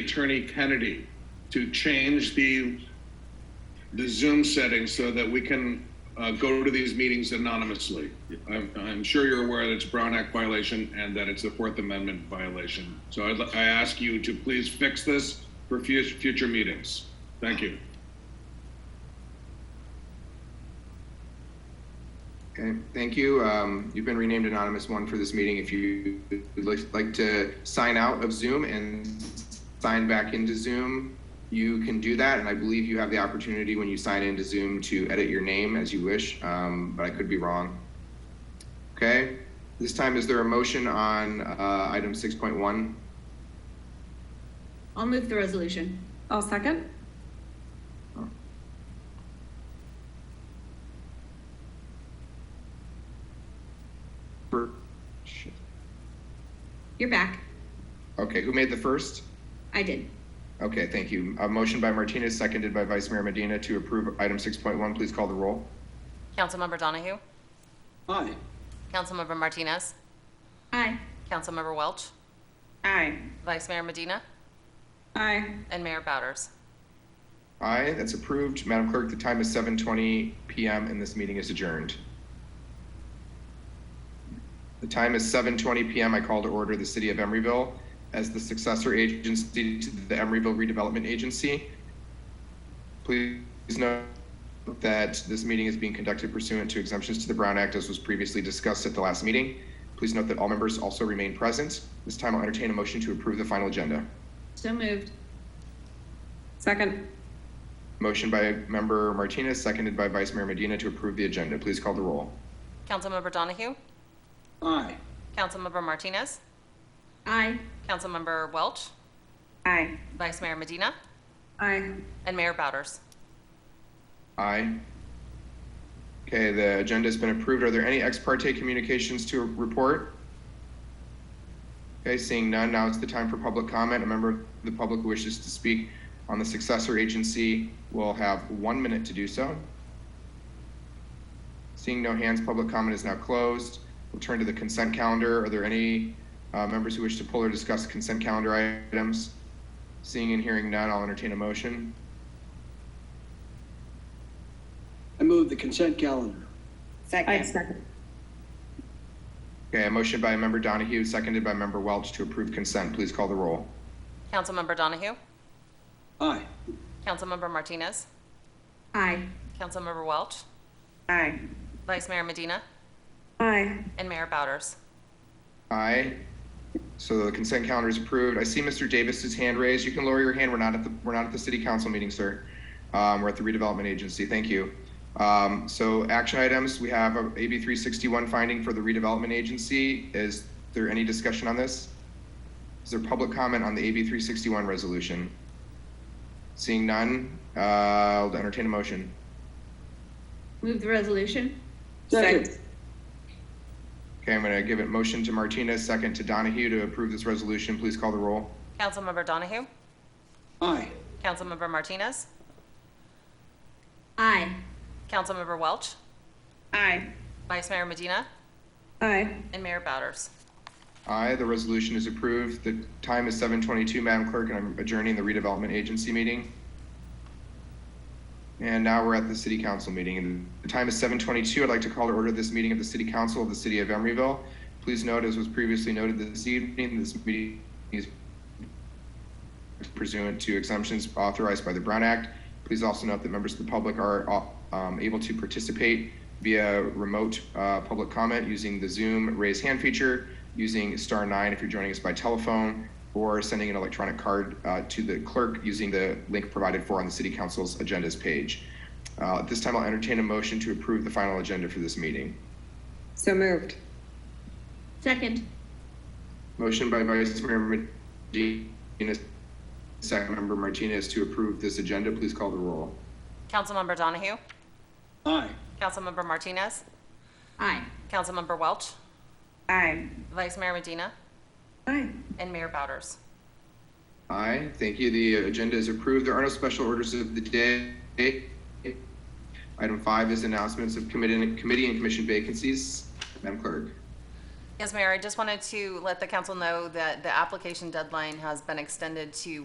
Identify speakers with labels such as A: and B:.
A: Attorney Kennedy to change the, the Zoom setting so that we can uh, go to these meetings anonymously. I'm, I'm sure you're aware that it's a Brown Act violation and that it's a Fourth Amendment violation. So I'd, li- I ask you to please fix this for fu- future meetings. Thank you.
B: Okay, thank you. Um, You've been renamed Anonymous One for this meeting. If you would like- like to sign out of Zoom and sign back into Zoom, you can do that. And I believe you have the opportunity when you sign into Zoom to edit your name as you wish, um, but I could be wrong. Okay, this time, is there a motion on uh, item 6.1?
C: I'll move the resolution.
D: I'll second.
B: For- shit.
C: You're back.
B: Okay, who made the first?
C: I did.
B: Okay, thank you. A motion by Martinez, seconded by Vice Mayor Medina to approve item 6.1. Please call the roll.
E: Councilmember Donahue?
F: Aye.
E: Councilmember Martinez?
C: Aye.
E: Councilmember Welch?
D: Aye.
E: Vice Mayor Medina?
D: Aye.
E: And Mayor Bowders?
B: Aye, that's approved. Madam Clerk, the time is 7:20 PM and this meeting is adjourned. The time is 7:20 PM. I call to order the City of Emeryville as the successor agency to the Emeryville Redevelopment Agency. Please note that this meeting is being conducted pursuant to exemptions to the Brown Act as was previously discussed at the last meeting. Please note that all members also remain present. This time I'll entertain a motion to approve the final agenda.
C: So moved.
D: Second.
B: Motion by Member Martinez, seconded by Vice Mayor Medina to approve the agenda. Please call the roll.
E: Councilmember Donahue?
F: Aye.
E: Councilmember Martinez?
C: Aye.
E: Councilmember Welch?
D: Aye.
E: Vice Mayor Medina?
D: Aye.
E: And Mayor Bowders?
B: Aye. Okay, the agenda's been approved. Are there any ex parte communications to report? Okay, seeing none, now it's the time for public comment. A member of the public who wishes to speak on the successor agency will have one minute to do so. Seeing no hands, public comment is now closed. We'll turn to the consent calendar. Are there any uh, members who wish to pull or discuss consent calendar items? Seeing and hearing none, I'll entertain a motion.
F: I move the consent calendar.
D: I second.
B: Okay, a motion by member Donahue, seconded by member Welch to approve consent. Please call the roll.
E: Councilmember Donahue?
F: Aye.
E: Councilmember Martinez?
C: Aye.
E: Councilmember Welch?
D: Aye.
E: Vice Mayor Medina?
D: Aye.
E: And Mayor Bowders?
B: Aye. So the consent calendar is approved. I see Mr. Davis's hand raised. You can lower your hand. We're not at the, we're not at the city council meeting, sir. Um, we're at the redevelopment agency. Thank you. Um, so action items, we have a AB three sixty-one finding for the redevelopment agency. Is there any discussion on this? Is there public comment on the AB three sixty-one resolution? Seeing none, uh, I'll entertain a motion.
C: Move the resolution.
F: Second.
B: Okay, I'm going to give it motion to Martinez, second to Donahue to approve this resolution. Please call the roll.
E: Councilmember Donahue?
F: Aye.
E: Councilmember Martinez?
C: Aye.
E: Councilmember Welch?
D: Aye.
E: Vice Mayor Medina?
D: Aye.
E: And Mayor Bowders?
B: Aye, the resolution is approved. The time is 7:22, Madam Clerk, and I'm adjourning the redevelopment agency meeting. And now we're at the city council meeting, and the time is 7:22. I'd like to call to order this meeting of the city council of the city of Emeryville. Please note, as was previously noted this evening, this meeting is pursuant to exemptions authorized by the Brown Act. Please also note that members of the public are um, able to participate via remote uh, public comment using the Zoom raise hand feature, using star nine if you're joining us by telephone, or sending an electronic card uh, to the clerk using the link provided for on the City Council's agendas page. Uh, at this time, I'll entertain a motion to approve the final agenda for this meeting.
D: So moved.
C: Second.
B: Motion by Vice Mayor Medina, second member Martinez to approve this agenda. Please call the roll.
E: Councilmember Donahue?
F: Aye.
E: Councilmember Martinez?
C: Aye.
E: Councilmember Welch?
D: Aye.
E: Vice Mayor Medina?
D: Aye.
E: And Mayor Bowders?
B: Aye, thank you. The agenda is approved. There are no special orders of the day. Item five is announcements of committee and committee and commission vacancies. Madam Clerk.
E: Yes, Mayor, I just wanted to let the council know that the application deadline has been extended to